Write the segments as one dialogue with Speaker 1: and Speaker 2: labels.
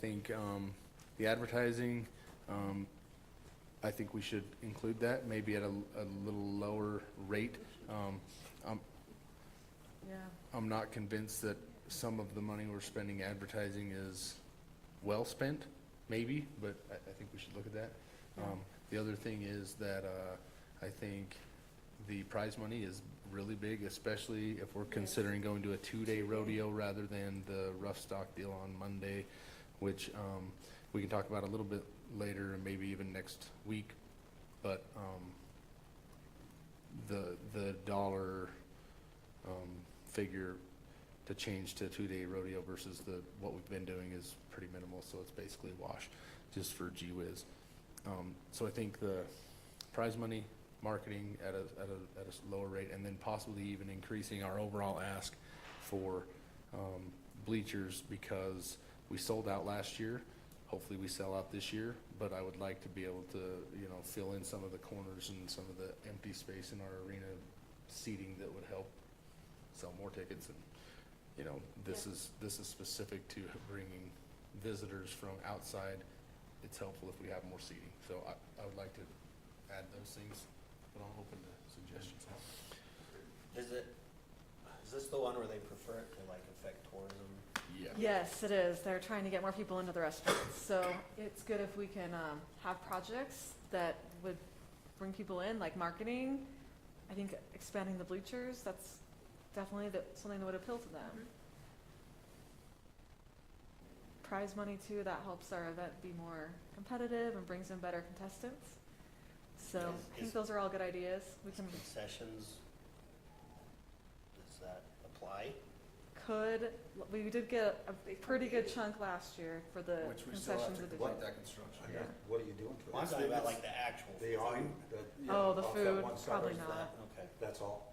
Speaker 1: think um, the advertising, um, I think we should include that, maybe at a, a little lower rate. Um, I'm,
Speaker 2: Yeah,
Speaker 1: I'm not convinced that some of the money we're spending advertising is well spent, maybe, but I, I think we should look at that. Um, the other thing is that, uh, I think the prize money is really big, especially if we're
Speaker 2: Yes.
Speaker 1: considering going to a two-day rodeo rather than the rough stock deal on Monday, which, um, we can talk about a little bit later and maybe even next week, but, um, the, the dollar, um, figure to change to two-day rodeo versus the, what we've been doing is pretty minimal, so it's basically a wash, just for gee whiz. Um, so I think the prize money, marketing at a, at a, at a s- lower rate, and then possibly even increasing our overall ask for, um, bleachers, because we sold out last year. Hopefully, we sell out this year, but I would like to be able to, you know, fill in some of the corners and some of the empty space in our arena seating that would help sell more tickets and, you know, this is, this is specific to bringing visitors from outside. It's helpful if we have more seating, so I, I would like to add those things, but I'm open to suggestions.
Speaker 3: Is it, is this the one where they prefer it to like affect tourism?
Speaker 1: Yeah.
Speaker 2: yes, it is. They're trying to get more people into the restaurants, so it's good if we can, um, have projects that would bring people in, like marketing. I think expanding the bleachers, that's definitely that, something that would appeal to them. Prize money too, that helps our event be more competitive and brings in better contestants. So
Speaker 3: Is-
Speaker 2: I think
Speaker 3: is-
Speaker 2: those are all good ideas. We can,
Speaker 3: Concessions? Does that apply?
Speaker 2: could, we did get a pretty good chunk last year for the concessions that they did.
Speaker 4: that construction.
Speaker 2: Yeah.
Speaker 5: What are you doing to it?
Speaker 3: Well, I'm talking about like the actual.
Speaker 5: The
Speaker 3: food.
Speaker 5: awning, that, you
Speaker 2: Oh,
Speaker 5: know,
Speaker 2: the
Speaker 5: off that
Speaker 2: food,
Speaker 5: one side,
Speaker 2: probably
Speaker 3: Is that-
Speaker 2: not.
Speaker 3: Okay.
Speaker 5: That's all.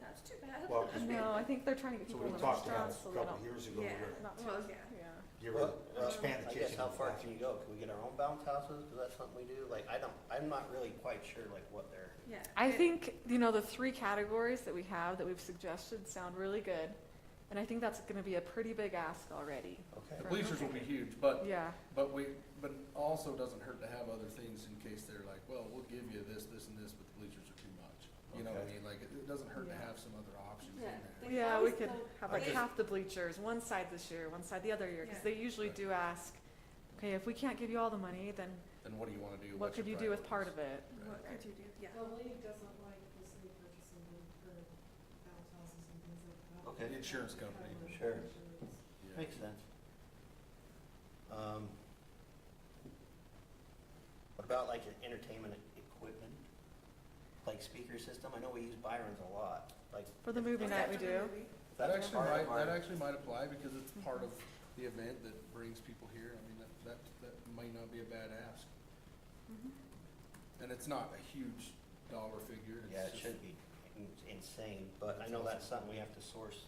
Speaker 6: That's too bad.
Speaker 5: Well, 'cause we-
Speaker 2: No, I think they're trying to get
Speaker 5: so
Speaker 2: people
Speaker 5: we
Speaker 2: in the
Speaker 5: talked about
Speaker 2: restaurants,
Speaker 5: it
Speaker 2: so
Speaker 5: a
Speaker 2: they
Speaker 5: couple
Speaker 2: don't.
Speaker 5: years ago, we
Speaker 6: Yeah.
Speaker 5: were,
Speaker 2: not
Speaker 6: Well,
Speaker 2: too-
Speaker 6: yeah.
Speaker 2: Yeah,
Speaker 5: you
Speaker 3: Well,
Speaker 5: were
Speaker 3: well,
Speaker 5: expand the
Speaker 3: I
Speaker 5: kitchen.
Speaker 3: guess how
Speaker 5: and
Speaker 3: far can
Speaker 5: bathroom.
Speaker 3: you go? Can we get our own bounce houses? Cause that's something we do. Like, I don't, I'm not really quite sure like what they're,
Speaker 6: Yeah.
Speaker 2: I
Speaker 6: It-
Speaker 2: think, you know, the three categories that we have, that we've suggested, sound really good. And I think that's gonna be a pretty big ask already.
Speaker 3: okay.
Speaker 2: for-
Speaker 4: Bleachers will be huge, but,
Speaker 2: Yeah,
Speaker 4: but we, but also doesn't hurt to have other things in case they're like, well, we'll give you this, this and this, but the bleachers are too much. You know what I
Speaker 5: Okay.
Speaker 4: mean? Like, it, it doesn't hurt to
Speaker 2: Yeah.
Speaker 4: have some other options in
Speaker 6: Yeah.
Speaker 4: there.
Speaker 6: They
Speaker 2: yeah, we
Speaker 6: always
Speaker 2: could
Speaker 6: go-
Speaker 2: have
Speaker 5: I
Speaker 2: like
Speaker 5: just-
Speaker 2: half the bleachers, one side this year, one side the other year, cause
Speaker 6: Yeah.
Speaker 2: they usually do ask, okay, if we can't give you all the money, then
Speaker 4: Then what do you wanna do?
Speaker 2: what
Speaker 4: What's
Speaker 2: could
Speaker 4: your
Speaker 2: you do with part
Speaker 4: priorities?
Speaker 2: of it?
Speaker 6: What could you do? Yeah.
Speaker 7: The league doesn't like the city purchasing them for bounce houses and things like that.
Speaker 3: Okay.
Speaker 4: The insurance company.
Speaker 7: Cover
Speaker 3: Sure.
Speaker 7: insurance.
Speaker 4: Yeah.
Speaker 3: Makes sense. Um, What about like an entertainment equipment? Like speaker system? I know we use Byron's a lot, like.
Speaker 2: For the
Speaker 3: if-
Speaker 2: movie
Speaker 3: if
Speaker 2: night,
Speaker 3: that's-
Speaker 2: we
Speaker 6: After the
Speaker 2: do.
Speaker 6: movie.
Speaker 3: if
Speaker 4: That
Speaker 3: that's
Speaker 4: actually
Speaker 3: part of
Speaker 4: might, that
Speaker 3: our-
Speaker 4: actually might apply because it's part of the event that brings people here. I mean, that, that, that might not be a bad ask.
Speaker 2: Mhm.
Speaker 3: Mm-hmm.
Speaker 4: And it's not a huge dollar figure. it's
Speaker 3: Yeah, it
Speaker 4: just-
Speaker 3: should be in- insane, but I know that's something we have to source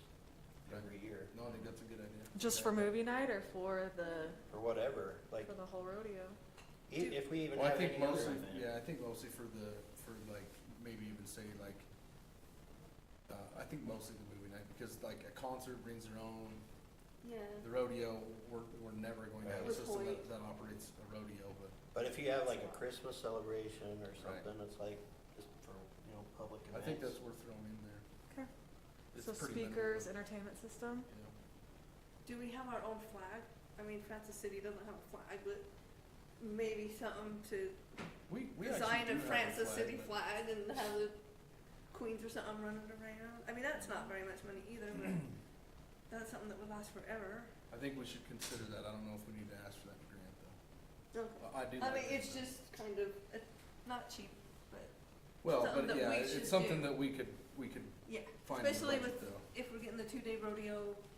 Speaker 3: every year
Speaker 4: No, I think that's a good idea.
Speaker 2: Just for movie night or for the,
Speaker 3: or whatever, like
Speaker 2: for the whole rodeo?
Speaker 3: i- if we even
Speaker 4: Well, I
Speaker 3: have any
Speaker 4: think
Speaker 3: other
Speaker 4: mostly,
Speaker 3: event.
Speaker 4: yeah, I think mostly for the, for like, maybe even say like, uh, I think mostly the movie night because like a concert brings their own, the
Speaker 2: Mm-hmm.
Speaker 6: Yeah.
Speaker 4: rodeo, we're, we're never going to have a
Speaker 6: With
Speaker 4: system that,
Speaker 6: Hoyt.
Speaker 4: that operates a rodeo, but
Speaker 3: But if you have like a Christmas celebration or something, it's like just for, you know, public
Speaker 4: I
Speaker 3: events.
Speaker 4: think that's worth throwing in there.
Speaker 2: Okay.
Speaker 4: It's
Speaker 2: So
Speaker 4: pretty minimal,
Speaker 2: speakers,
Speaker 4: but,
Speaker 2: entertainment system?
Speaker 4: you know.
Speaker 6: Do we have our own flag? I mean, Francis City doesn't have a flag, but maybe something to
Speaker 4: We, we actually
Speaker 6: design
Speaker 4: do
Speaker 6: a
Speaker 4: have a
Speaker 6: Francis
Speaker 4: flag,
Speaker 6: City
Speaker 4: but-
Speaker 6: flag and have the queens or something running around. I mean, that's not very much money either, but that's something that would last forever.
Speaker 4: I think we should consider that. I don't know if we need to ask for that grant though.
Speaker 6: Okay.
Speaker 4: I I do.
Speaker 6: I
Speaker 4: like
Speaker 6: mean,
Speaker 4: that,
Speaker 6: it's
Speaker 4: but-
Speaker 6: just kind of, uh, not cheap, but
Speaker 4: Well,
Speaker 6: something
Speaker 4: but
Speaker 6: that
Speaker 4: yeah,
Speaker 6: we
Speaker 4: it's
Speaker 6: should
Speaker 4: something
Speaker 6: do.
Speaker 4: that we could, we could
Speaker 6: yeah,
Speaker 4: find in the
Speaker 6: especially
Speaker 4: budget
Speaker 6: with,
Speaker 4: though.
Speaker 6: if we're getting the two-day rodeo,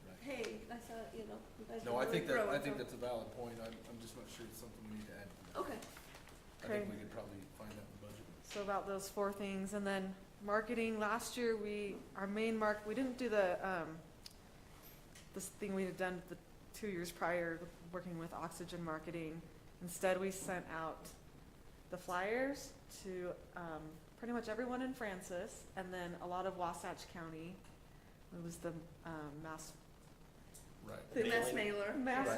Speaker 4: Right.
Speaker 6: hey, I saw, you know, you guys
Speaker 4: No, I
Speaker 6: are really
Speaker 4: think that, I
Speaker 6: growing,
Speaker 4: think
Speaker 6: so-
Speaker 4: that's a valid point. I'm, I'm just not sure it's something we need to add. to that.
Speaker 6: Okay,
Speaker 4: I
Speaker 2: Okay.
Speaker 4: think we could probably find out in the budget.
Speaker 2: So about those four things, and then marketing, last year, we, our main mark, we didn't do the, um, this thing we had done the two years prior, working with Oxygen Marketing. Instead, we sent out the flyers to, um, pretty much everyone in Francis, and then a lot of Wasatch County. It was the, um, mass,
Speaker 4: Right.
Speaker 6: the mass
Speaker 3: Mailing.
Speaker 6: mailer.
Speaker 2: mass
Speaker 3: Right.